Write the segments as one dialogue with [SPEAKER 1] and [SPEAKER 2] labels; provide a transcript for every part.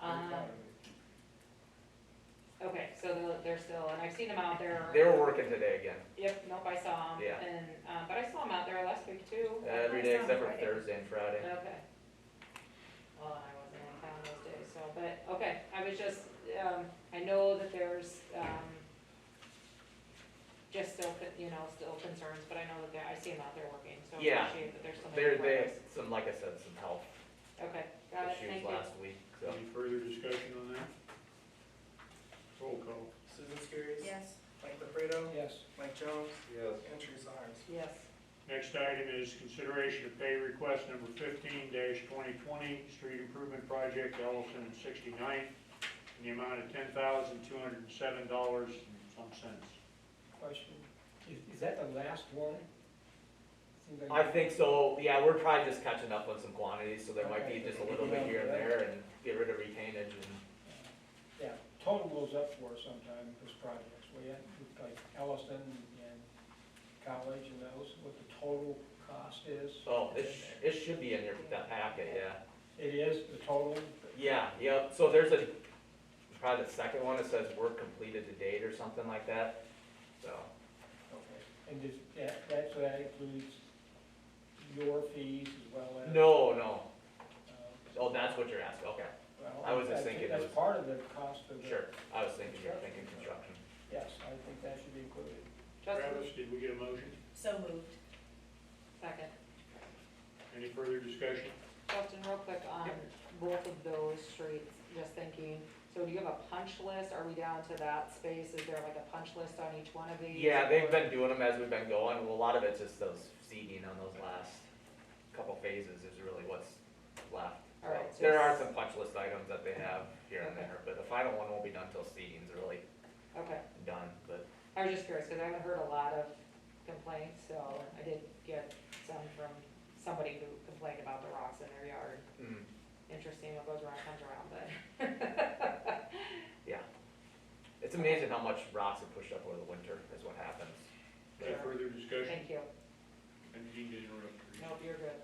[SPEAKER 1] Um, so they're- they're still, and I've seen them out there.
[SPEAKER 2] They were working today again,
[SPEAKER 1] Yep, nope, I saw them.
[SPEAKER 2] Yeah. Uh,
[SPEAKER 1] And, um, but I saw them out there last week too.
[SPEAKER 2] every day except for Thursday and Friday.
[SPEAKER 1] Okay. Well, I wasn't in town those days, so, but, okay, I was just, um, I know that there's, um, just still, con- you know, still concerns, but I know that they're, I see them out there working, so I
[SPEAKER 2] Yeah.
[SPEAKER 1] appreciate that there's some.
[SPEAKER 2] There, they had some, like I said, some health
[SPEAKER 1] Okay, got it, thank
[SPEAKER 2] issues
[SPEAKER 1] you.
[SPEAKER 2] last week, so.
[SPEAKER 3] Any further discussion on that? Roll call.
[SPEAKER 4] Susan Skiris.
[SPEAKER 5] Yes.
[SPEAKER 4] Mike LaFredo.
[SPEAKER 3] Yes.
[SPEAKER 4] Mike Jones.
[SPEAKER 6] Yes.
[SPEAKER 4] And Teresa Harms.
[SPEAKER 1] Yes,
[SPEAKER 3] Next item is consideration of pay request number fifteen twenty twenty, street improvement project Ellison and 69, in the amount of ten thousand two hundred and seven dollars and some cents.
[SPEAKER 7] Question, is, is that the last one? Seems like-
[SPEAKER 2] I think so, yeah, we're probably just catching up on some quantities, so there might be just a little bit here and there and get rid of retainage and,
[SPEAKER 7] Yeah, total goes up for us sometime, with projects, we had, like Ellison and college and those, what the total cost is.
[SPEAKER 2] oh, it, sh- it should be in your, that packet, yeah.
[SPEAKER 7] It is, the total,
[SPEAKER 2] Yeah, yep, so there's a, probably the second one, it says work completed to date or something like that, so.
[SPEAKER 7] okay, and does, that, that, so that includes your fees as well as?
[SPEAKER 2] No, no,
[SPEAKER 7] uh,
[SPEAKER 2] oh, that's what you're asking, okay,
[SPEAKER 7] well,
[SPEAKER 2] I was just
[SPEAKER 7] think
[SPEAKER 2] thinking it
[SPEAKER 7] That's
[SPEAKER 2] was-
[SPEAKER 7] part of the cost of the.
[SPEAKER 2] sure, I was thinking, you're thinking construction.
[SPEAKER 7] Yes, I think that should be included.
[SPEAKER 1] Justin,
[SPEAKER 3] Travis, did we get a motion?
[SPEAKER 5] So moved.
[SPEAKER 1] second.
[SPEAKER 3] Any further discussion?
[SPEAKER 1] Justin, real quick on both of those streets, just thinking, so do you have a punch list? Are we down to that space? Is there like a punch list on each one of these?
[SPEAKER 2] Yeah, they've
[SPEAKER 1] or-
[SPEAKER 2] been doing them as we've been going, well, a lot of it's just those seeding on those last couple phases is really what's left.
[SPEAKER 1] All right, so
[SPEAKER 2] There are
[SPEAKER 1] it's-
[SPEAKER 2] some punch list items that they have here and
[SPEAKER 1] Okay.
[SPEAKER 2] there, but the final one won't be done till seeding's really
[SPEAKER 1] Okay,
[SPEAKER 2] done, but
[SPEAKER 1] I was just curious, because I haven't heard a lot of complaints, so I did get some from somebody who complained about the rocks in their yard.
[SPEAKER 2] mm,
[SPEAKER 1] Interesting what goes around comes around, but.
[SPEAKER 2] it's amazing how much rocks are pushed up over the winter is what happens.
[SPEAKER 3] Any
[SPEAKER 1] Sure.
[SPEAKER 3] further discussion?
[SPEAKER 1] Thank you.
[SPEAKER 3] And you didn't interrupt. Teresa.
[SPEAKER 1] Nope, you're good.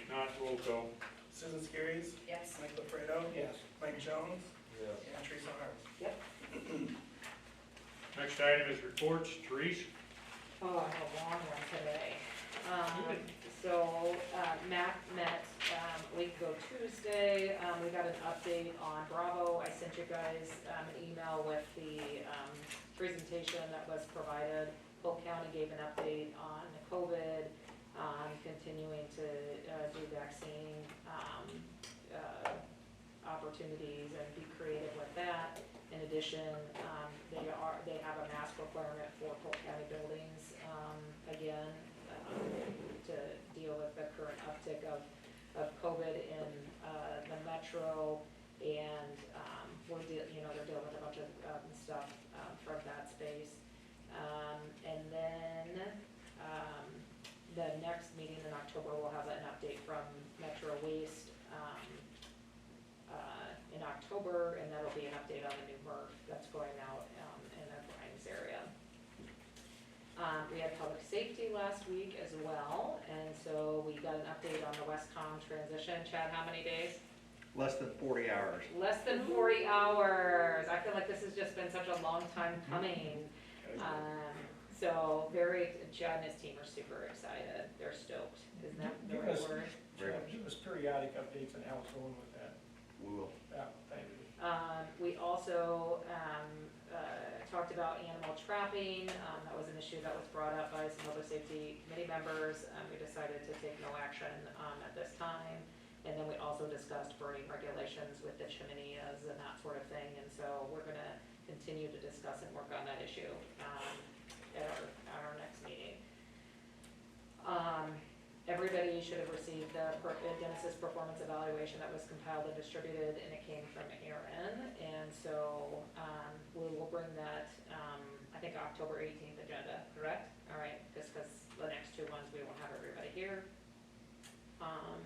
[SPEAKER 3] If not, roll call.
[SPEAKER 4] Susan Skiris.
[SPEAKER 5] Yes.
[SPEAKER 4] Mike LaFredo.
[SPEAKER 7] Yes.
[SPEAKER 4] Mike Jones.
[SPEAKER 6] Yes.
[SPEAKER 4] And Teresa Harms.
[SPEAKER 3] Next item is reports. Teresa?
[SPEAKER 1] Oh, I have a long one today. Um, so, uh, Mac met, um, a week ago Tuesday, um, we got an update on Bravo. I sent you guys, um, an email with the, um, presentation that was provided. Polk County gave an update on the COVID, um, continuing to, uh, do vaccine, um, uh, opportunities and be creative with that. In addition, um, they are, they have a mask requirement for Polk County buildings, um, again, um, to deal with the current uptick of, of COVID in, uh, the metro. And, um, we're deal, you know, they're dealing with a bunch of, um, stuff, um, from that space. Um, and then, um, the next meeting in October, we'll have an update from Metro Waste, um, uh, in October, and that'll be an update on the new MRF that's going out um, in the Grimes area. Um, We had public safety last week as well, and so we got an update on the Westcom transition. Chad, how many days?
[SPEAKER 8] Less than forty hours.
[SPEAKER 1] Less than forty hours. I feel like this has just been such a long time
[SPEAKER 8] Mm-hmm.
[SPEAKER 1] coming. Um, So very, Chad and his team are super excited. They're stoked. Isn't that the
[SPEAKER 7] You
[SPEAKER 1] right
[SPEAKER 7] guys-
[SPEAKER 1] word?
[SPEAKER 8] Very
[SPEAKER 7] Give us periodic updates on how it's going with that,
[SPEAKER 8] We will.
[SPEAKER 7] yeah, thank you.
[SPEAKER 1] Um, we also, um, uh, talked about animal trapping, um, that was an issue that was brought up by some other safety committee members, um, we decided to take no action, um, at this time. And then we also discussed burning regulations with the chimeneas and that sort of thing, and so we're gonna continue to discuss and work on that issue, um, at our, at our next meeting. Um, Everybody should have received the per- the Genesis performance evaluation that was compiled and distributed, and it came from Aaron. And so, um, we will bring that, um, I think October eighteenth agenda, correct? All right, just because the next two ones, we won't have everybody here. Um,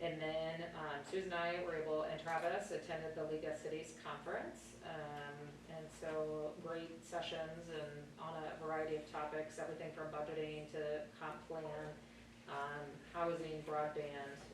[SPEAKER 1] and then, um, Susan and I were able, and Travis attended the League of Cities Conference. Um, and so, great sessions and on a variety of topics, everything from budgeting to comp plan um, housing, broadband,